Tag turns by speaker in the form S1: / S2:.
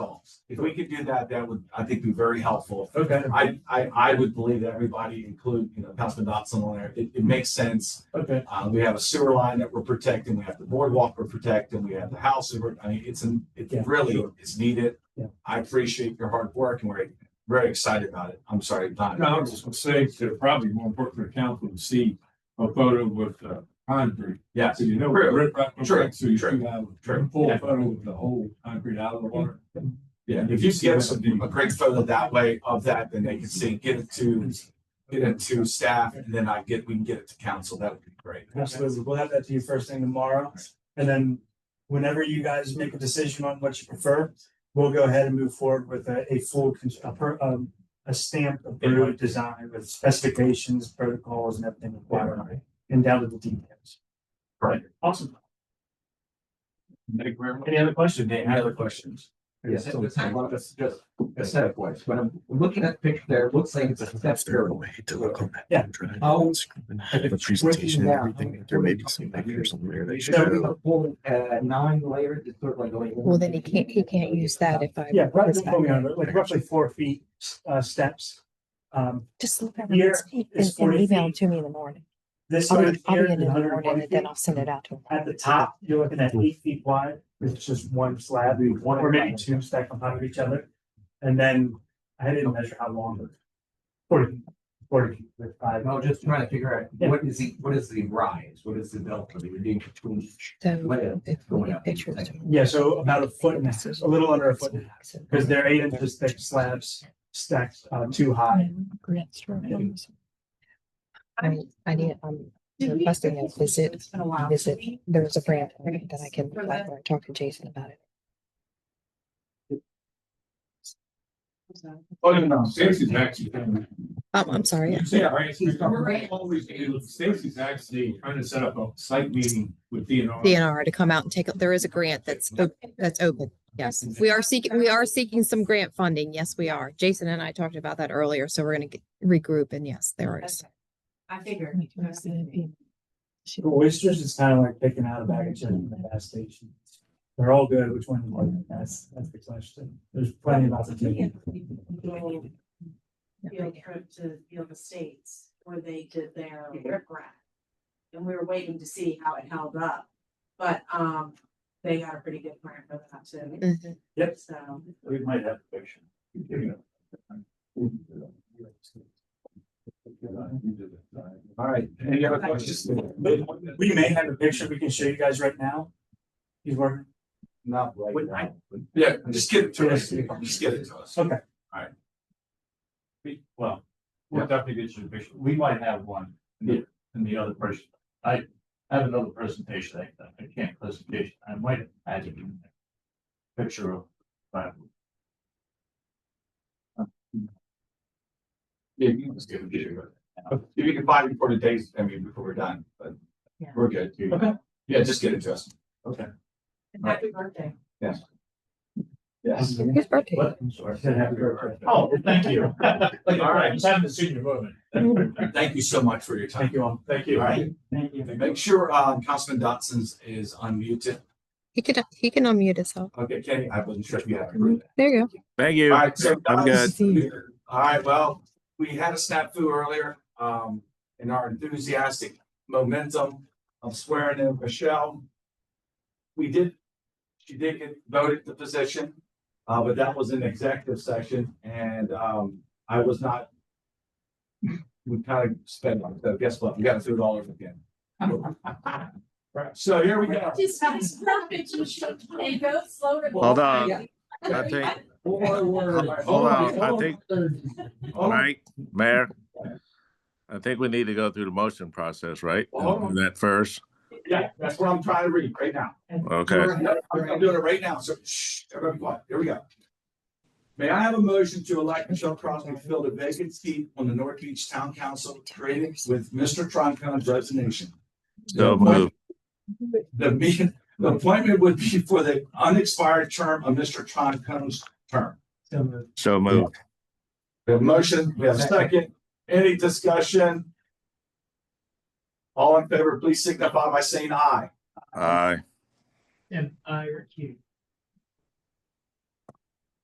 S1: If we could do that, that would, I think, be very helpful.
S2: Okay,
S1: I, I, I would believe that everybody, include, you know, Councilman Dotson on there, it, it makes sense.
S2: okay,
S1: Uh, we have a sewer line that we're protecting, we have the boardwalk we're protecting, we have the house, that we're- I mean, it's, an- it
S2: Yeah,
S1: really
S2: sure.
S1: is needed.
S2: Yeah.
S1: I appreciate your hard work and we're very excited about it. I'm sorry, Don.
S3: No, I was just gonna say, that probably more important for the council to see a photo with uh concrete.
S1: Yes.
S3: So you know.
S1: True.
S3: rip right from
S1: True.
S3: back, So you
S1: True.
S3: should have
S1: True.
S3: a full
S1: Yeah.
S3: photo with the whole concrete out of the water.
S1: Yeah, if you give us a a great photo that way of that, then they can see, get it to, get it to staff, and then I get, we can get it to council. That would be great.
S2: absolutely. We'll have that to you first thing tomorrow. And then whenever you guys make a decision on what you prefer, we'll go ahead and move forward with a, a full, cons- a per, um, a stamped approved design with specifications, protocols and everything required. And down to the details.
S1: Right.
S2: Awesome.
S3: Thank you very much.
S2: Any other questions?
S4: Any other questions?
S5: Yes,
S4: So it's
S5: it's
S4: a
S5: a
S4: lot of- just
S5: a set of boys. When I'm looking at the picture there, it looks like it's a step stairway.
S6: to look on that.
S2: Yeah.
S6: Oh.
S5: The presentation and everything, there may be some pictures on there. They should Should we
S6: have.
S5: have full uh nine layer, it's sort of like. going-
S7: Well, then he can't, he can't use that if I.
S2: Yeah, right,
S7: was back.
S2: uh, like roughly four feet, uh, steps. Um,
S7: Just look at
S2: Here
S7: it and
S2: is
S7: and
S2: 40
S7: email it
S2: feet.
S7: to me in the morning.
S2: this
S7: I'll
S2: right
S7: be, I'll
S2: here
S7: be in
S2: is
S7: in the
S2: 120
S7: morning and then
S2: feet.
S7: I'll send it out to him.
S2: At the top, you're looking at eight feet wide, it's just one slab, or maybe two stacked on top of each other. And then I didn't measure how long, but forty, forty with five.
S5: No, just trying to figure out
S2: Yeah.
S5: what is the, what is the rise? What is the delta that you're doing between each?
S7: So
S5: Layout
S7: if we
S5: going
S7: get
S5: up and
S7: pictures.
S5: things.
S2: Yeah, so about a foot and a half, a little under a foot, because they're eight inches thick slabs stacked uh too high.
S7: I, I need, I'm requesting a visit, visit, there's a brand that I can apply for and talk to Jason about it.
S3: Oh, no, no, Stacy's actually.
S7: Um, I'm sorry,
S3: You see, right, it's become- always do. Stacy's actually trying to set up a site meeting with DNR.
S7: DNR to come out and take, a- there is a grant that's, op- that's open. Yes, we are seeking, we are seeking some grant funding. Yes, we are. Jason and I talked about that earlier, so we're gonna get- regroup and yes, there is.
S8: I figured.
S2: Oysters is kind of like picking out a bag of chips in the gas station. They're all good, which one do you like? That's, that's the question. There's plenty of opportunity.
S8: Field trip to Field Estates where they did their riprap. And we were waiting to see how it held up, but, um, they got a pretty good grant for that too,
S7: Mhm.
S8: so.
S3: We might have a picture.
S1: All right. Any other questions?
S2: We may have a picture we can show you guys right now. He's working.
S1: Not right
S5: Wait,
S1: now. Yeah, just give it to us. Just give it to us.
S2: Okay.
S3: We- Well, we'll definitely get you a picture. We might have one in the, in the other person. I have another presentation, I, I can't presentation, I might add it in there. Picture of. that.
S1: Yeah, you can just give it to us. If you can find it before the days, I mean, before we're done, but
S7: Yeah.
S1: we're good.
S2: Okay.
S1: Yeah, just get it to us.
S8: And happy birthday.
S1: Yes.
S7: His birthday.
S3: What? I'm sorry. Oh, thank you. All right, just haven't seen your movement.
S7: Mm-hmm.
S1: Thank you so much for your time.
S2: Thank you all.
S3: Thank
S1: All
S3: you.
S1: right.
S2: Thank you.
S1: Make sure, uh, Councilman Dotson's is unmuted.
S7: He can, he can unmute himself.
S1: Okay, Kenny, I wasn't sure if you had. to prove that.
S7: There you go.
S9: Thank you.
S1: All right, so
S9: I'm
S1: guys,
S7: good.
S1: we- All right, well, we had a snafu earlier, um, in our enthusiastic momentum of swearing in Michelle. We did, she did get voted the position, uh, but that was an executive session and, um, I was not. We kind of spent, on it, so guess what? We got to do it all over again. Right, so here we go.
S8: Just sounds perfect, you should, and go slower. than-
S9: Hold on. I think, hold on,
S1: Oh.
S9: I think,
S1: Hold on.
S9: Mike, Mayor. I think we need to go through the motion process, right?
S1: Hold on.
S9: Do That first,
S1: Yeah, that's what I'm trying to read right now.
S9: okay.
S1: Yep, I'm I'm doing it right now, so shh, everybody quiet, here we go. May I have a motion to elect Michelle Crosby to fill the vacant seat on the North Beach Town Council created with Mr. Troncon's resignation?
S9: So move,
S1: The meeting, the appointment would be for the unexpired term of Mr. Troncon's term.
S9: so move.
S1: We have a motion, we have a second, any discussion?
S9: Uh,
S1: All in favor, please signify by saying aye.
S9: Aye.
S5: And I you.